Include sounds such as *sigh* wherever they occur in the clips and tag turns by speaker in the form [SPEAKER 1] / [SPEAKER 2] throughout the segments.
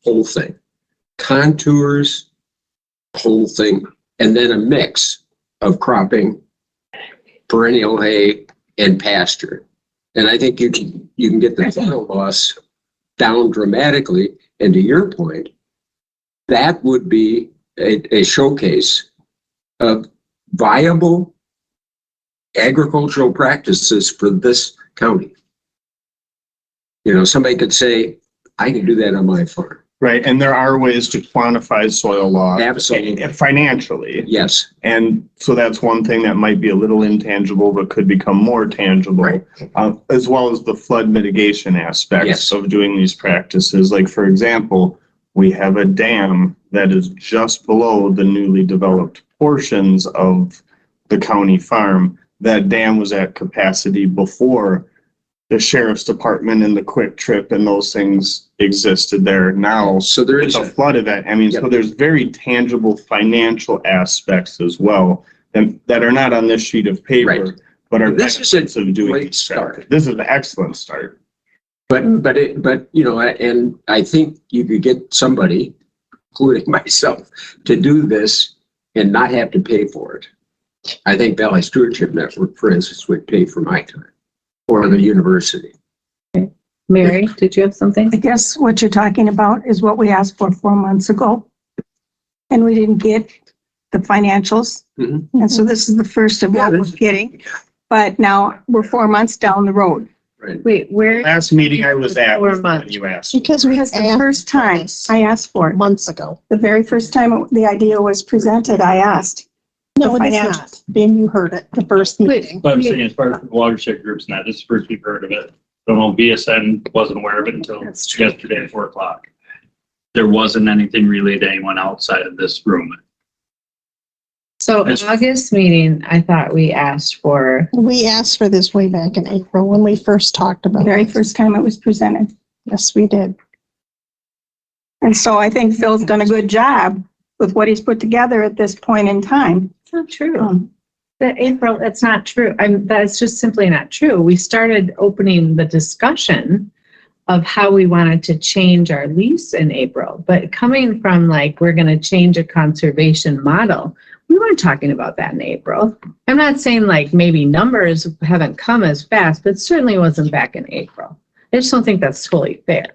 [SPEAKER 1] whole thing. Contours, whole thing, and then a mix of cropping, perennial hay and pasture. And I think you can, you can get the soil loss down dramatically. And to your point, that would be a, a showcase of viable agricultural practices for this county. You know, somebody could say, I can do that on my farm.
[SPEAKER 2] Right, and there are ways to quantify soil loss.
[SPEAKER 1] Absolutely.
[SPEAKER 2] eh, Financially,
[SPEAKER 1] Yes,
[SPEAKER 2] and so that's one thing that might be a little intangible, but could become more
[SPEAKER 1] Right.
[SPEAKER 2] tangible. Uh, as well as the flood mitigation aspects
[SPEAKER 1] Yes.
[SPEAKER 2] of doing these practices, like for example, we have a dam that is just below the newly developed portions of the county farm. That dam was at capacity before the sheriff's department and the quick trip and those things existed there. Now,
[SPEAKER 1] so there is,
[SPEAKER 2] it's a flood event. I mean, so
[SPEAKER 1] Yep.
[SPEAKER 2] there's very tangible financial aspects as well that, that are not on this sheet of
[SPEAKER 1] Right.
[SPEAKER 2] paper, but are
[SPEAKER 1] This is a
[SPEAKER 2] benefits of doing.
[SPEAKER 1] great
[SPEAKER 2] these practices.
[SPEAKER 1] start.
[SPEAKER 2] This is an excellent start.
[SPEAKER 1] but, but it, but, you know, and I think you could get somebody, including *laughs* myself, to do this and not have to pay for it. I think Valley Stewardship Network, for instance, would pay for my time or the university.
[SPEAKER 3] Mary, did you have something?
[SPEAKER 4] I guess what you're talking about is what we asked for four months ago. And we didn't get the financials.
[SPEAKER 1] Mhm.
[SPEAKER 4] And so this is the first of
[SPEAKER 1] Yeah,
[SPEAKER 4] what we're
[SPEAKER 1] this is-
[SPEAKER 4] getting. But now we're four months down the road.
[SPEAKER 1] Right.
[SPEAKER 3] Wait, where,
[SPEAKER 2] Last meeting I was at,
[SPEAKER 3] Four
[SPEAKER 2] was when
[SPEAKER 3] months.
[SPEAKER 2] you asked.
[SPEAKER 4] Because we. Because the first time I asked for it,
[SPEAKER 5] months ago.
[SPEAKER 4] the very first time the idea was presented, I asked.
[SPEAKER 5] No,
[SPEAKER 4] The
[SPEAKER 5] it is
[SPEAKER 4] financials.
[SPEAKER 5] not. Ben, you heard it, the first meeting.
[SPEAKER 6] But I'm saying as far as the watershed groups, now, this is the first we've heard of it. The whole BSN wasn't aware of it until yesterday at four o'clock. There wasn't anything relayed to anyone outside of this room.
[SPEAKER 3] so August meeting, I thought we asked for,
[SPEAKER 5] We asked for this way back in April when we first talked
[SPEAKER 4] The
[SPEAKER 5] about
[SPEAKER 4] very
[SPEAKER 5] it.
[SPEAKER 4] first time it was presented.
[SPEAKER 5] Yes, we did.
[SPEAKER 4] And so I think Phil's done a good job with what he's put together at this point in time.
[SPEAKER 3] it's not true.
[SPEAKER 4] Um,
[SPEAKER 3] That Oh, April, that's not true. I'm, that's just simply not true. We started opening the discussion of how we wanted to change our lease in April, but coming from like, we're gonna change a conservation model. We weren't talking about that in April. I'm not saying like maybe numbers haven't come as fast, but certainly wasn't back in April. I just don't think that's totally fair.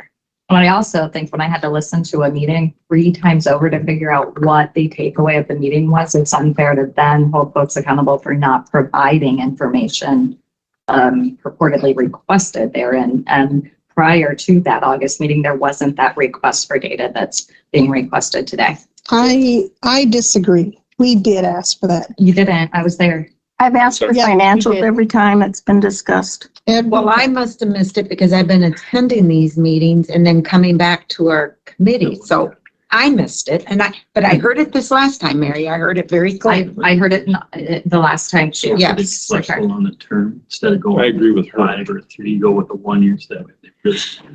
[SPEAKER 7] But I also think when I had to listen to a meeting three times over to figure out what the takeaway of the meeting was, it's unfair to then hold folks accountable for not providing information um, purportedly requested therein. And prior to that August meeting, there wasn't that request for data that's being requested today.
[SPEAKER 5] I, I disagree. We did ask for that.
[SPEAKER 7] You didn't, I was there.
[SPEAKER 4] I've asked for
[SPEAKER 5] Yeah, you
[SPEAKER 4] financials
[SPEAKER 5] did.
[SPEAKER 4] every time it's been discussed.
[SPEAKER 5] Ed,
[SPEAKER 8] Well, I must have missed it because I've been attending these meetings and then coming back to our committee. So I missed it and I, but I heard it this last time, Mary. I heard it very
[SPEAKER 7] I,
[SPEAKER 8] clearly.
[SPEAKER 7] I heard it in- uh, the last time too.
[SPEAKER 8] Yeah.
[SPEAKER 6] Be Flexible on the term instead of going. I agree with her. Five or three, go with the one year step.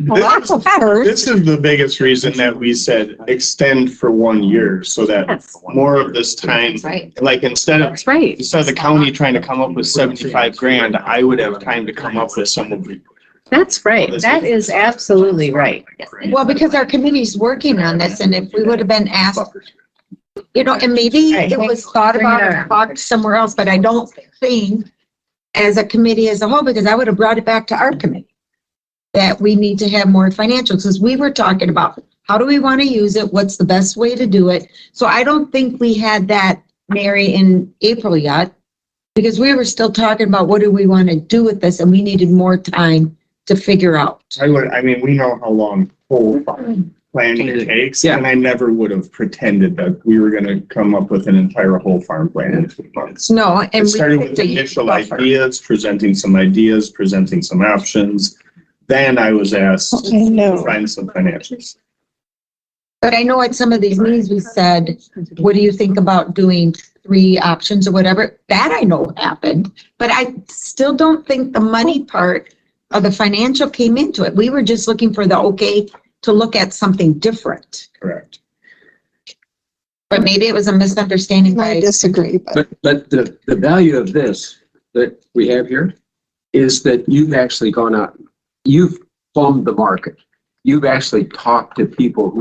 [SPEAKER 5] Well, that's a
[SPEAKER 2] This
[SPEAKER 5] first.
[SPEAKER 2] is the biggest reason that we said extend for one year so that
[SPEAKER 7] Yes,
[SPEAKER 2] more of this time,
[SPEAKER 7] that's right.
[SPEAKER 2] like instead of
[SPEAKER 3] That's right.
[SPEAKER 2] instead of the county trying to come up with seventy-five grand, I would have time to come up with some of the
[SPEAKER 3] That's right. That is absolutely right.
[SPEAKER 7] Yes.
[SPEAKER 8] Well, because our committee's working on this and if we would have been asked, you know, and maybe it was thought about or talked somewhere else, but I don't think as a committee as a whole, because I would have brought it back to our committee. That we need to have more financials, because we were talking about, how do we want to use it? What's the best way to do it? So I don't think we had that, Mary, in April yet. Because we were still talking about what do we want to do with this and we needed more time to figure out.
[SPEAKER 2] I would, I mean, we know how long whole farm planning takes, and I never would have pretended that we were gonna come up with an entire whole farm plan in three months.
[SPEAKER 8] No, and.
[SPEAKER 2] It
[SPEAKER 8] we
[SPEAKER 2] started with
[SPEAKER 8] picked a
[SPEAKER 2] initial
[SPEAKER 8] buffer.
[SPEAKER 2] ideas, presenting some ideas, presenting some options. Then I was asked
[SPEAKER 5] I
[SPEAKER 2] to
[SPEAKER 5] know.
[SPEAKER 2] find some financials.
[SPEAKER 8] But I know at some of these meetings, we said, what do you think about doing three options or whatever? That I know happened, but I still don't think the money part of the financial came into it. We were just looking for the okay to look at something different.
[SPEAKER 2] Correct.
[SPEAKER 8] But maybe it was a misunderstanding
[SPEAKER 5] I
[SPEAKER 8] by,
[SPEAKER 5] disagree, but
[SPEAKER 1] But, but the, the value of this that we have here is that you've actually gone out, you've plumbed the market. You've actually talked to people who